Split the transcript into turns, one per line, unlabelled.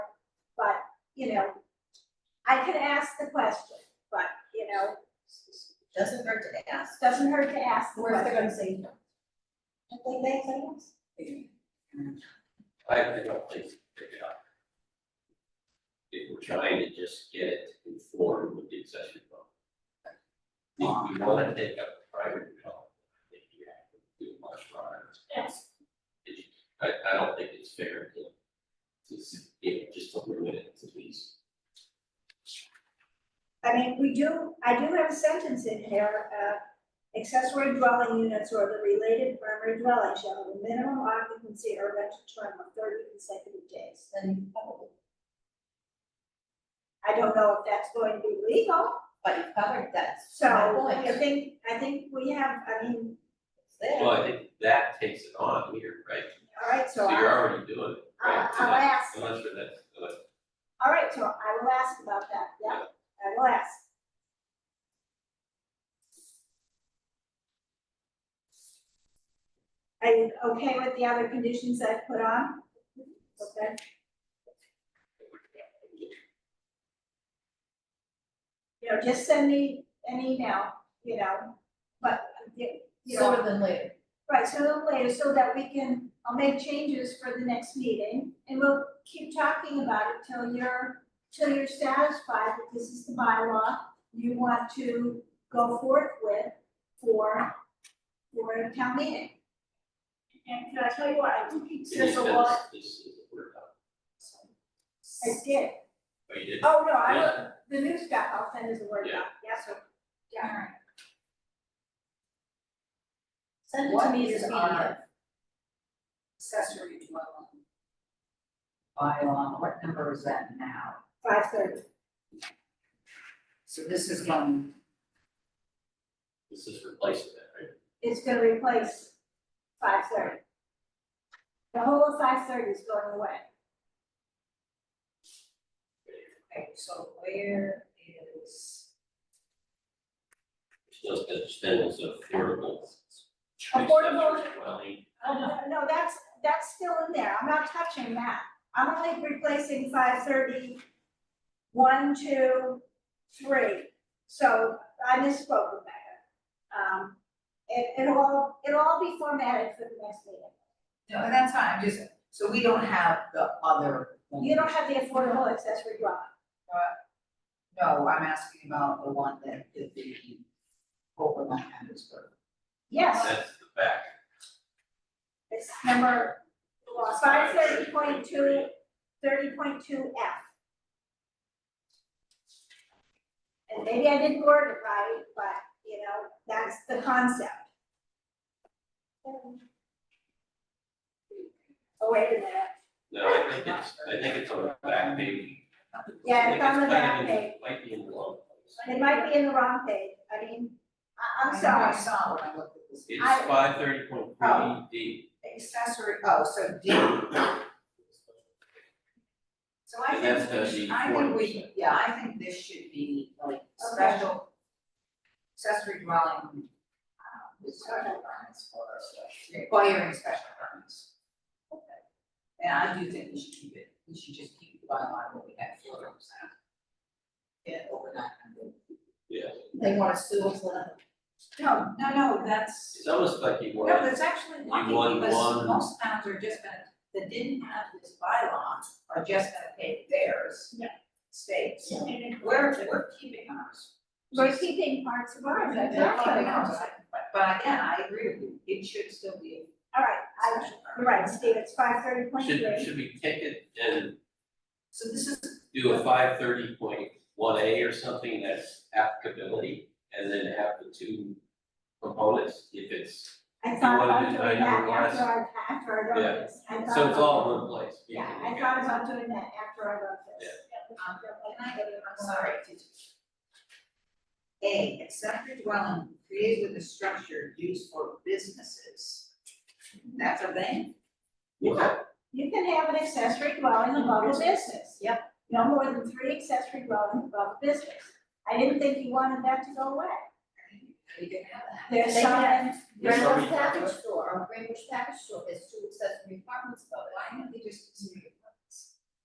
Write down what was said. you know, I could ask the question, but, you know,
Doesn't hurt to ask.
doesn't hurt to ask the
Or if they're
question.
gonna say no. I think they say yes.
I I don't think it's a good idea. If we're trying to just get it informed with the accessory dwelling. If you wanna take up the primary dwelling, I think you have to do much prior.
Yes.
It- I I don't think it's fair to to s- you know, just to limit it to these.
I mean, we do, I do have a sentence in here, uh, accessory dwelling units or the related primary dwelling shall have a minimum occupancy or rental term of thirty consecutive days.
Then probably,
I don't know if that's going to be legal,
but you covered that.
so
My point.
I think, I think we have, I mean,
It's there.
Well, I think that takes it on here, right?
all right, so
So you're
I,
already doing it, right?
I'll- I'll ask.
Unless you're that, unless
all right, so I will ask about that, yeah, I will ask. Are you okay with the other conditions I've put on? Okay. you know, just send me an email, you know, but, you you know,
Sooner than later.
right, so later, so that we can, I'll make changes for the next meeting, and we'll keep talking about it till you're, till you're satisfied that this is the bylaw you want to go forth with for, for a town meeting. And can I tell you what, I do think
This
there's a lot,
This is the word,
I did,
but you did.
oh, no, I, will- the new stuff, I'll send as a word doc, yes, sir. Yeah.
Send it to
What
me as
is
a
our-
media.
accessory dwelling. Bylaw, what number is that now?
Five thirty.
So this is going,
This is replacing that, right?
It's gonna replace five thirty. The whole of five thirty is going away.
okay, so where is,
Just that spend was affordable.
Affordable.
accessory dwelling.
Uh, No, that's, that's still in there, I'm not touching that. I'm only replacing five thirty, one, two, three. So I misspoke, Rebecca. Um, it, it'll all, it'll all be formatted for the next meeting.
no, that's fine, I'm just, so we don't have the other. one.
You don't have the affordable accessory dwelling.
No, I'm asking about the one that did the open on Hattiesburg.
Yes,
That's the back.
it's number five thirty point two, thirty point two F. And maybe I didn't word it right, but, you know, that's the concept. Oh, wait a minute,
No, I think it's, I think it's on the back page.
Yeah, it's
I think
on the
kind of
back
in- Might be in the wrong place.
it might be in the wrong page, I mean, I,
I
I'm
know I
sorry,
saw when I looked at this.
It's
I-
five thirty point three
Oh.
D.
Accessory, oh, so D. So I
And that's
think,
gonna
we
be
should- I think we,
40%.
yeah, I think this should be like special accessory dwelling, um, with special permits for, requiring special permits. And I do think we should keep it, we should just keep the bylaw what we have for ourselves. Yeah, overnight.
Yeah,
They want to sue us, let
No, no, no, that's.
it's almost like you
No,
want,
that's actually lucky
want
because
one-
most towns are just gonna, that didn't have this bylaw are just gonna pay theirs.
Yeah.
States. We're, we're keeping ours.
we're keeping parts of ours,
They're
that's
keeping ours. But, but again, I agree with you, it should still be
All right,
a
I,
special
you're
permit.
right, Steve, it's five thirty point
should,
three.
should we take it and
So this is,
do a five thirty point one A or something that's applicability? And then have the two components, if it's,
I thought
wanted
about
to
doing
invite
that
everyone else?
after I, after I wrote
uh, Yeah.
this. I thought
so it's all
about-
in one place. You
Yeah,
can
I
look
thought
at it.
about doing that after I wrote this.
um, can I get it, I'm sorry. A, accessory dwelling created with a structure used for businesses. That's a thing?
Yeah,
You can have an accessory dwelling above a business.
Yep.
No more than three accessory dwellings above a business. I didn't think you wanted that to go away.
We can have that.
There's
They
some,
can.
There's
Randall's
already-
package store, or Greenwich package store, there's two accessory apartments above it.
Why don't we just,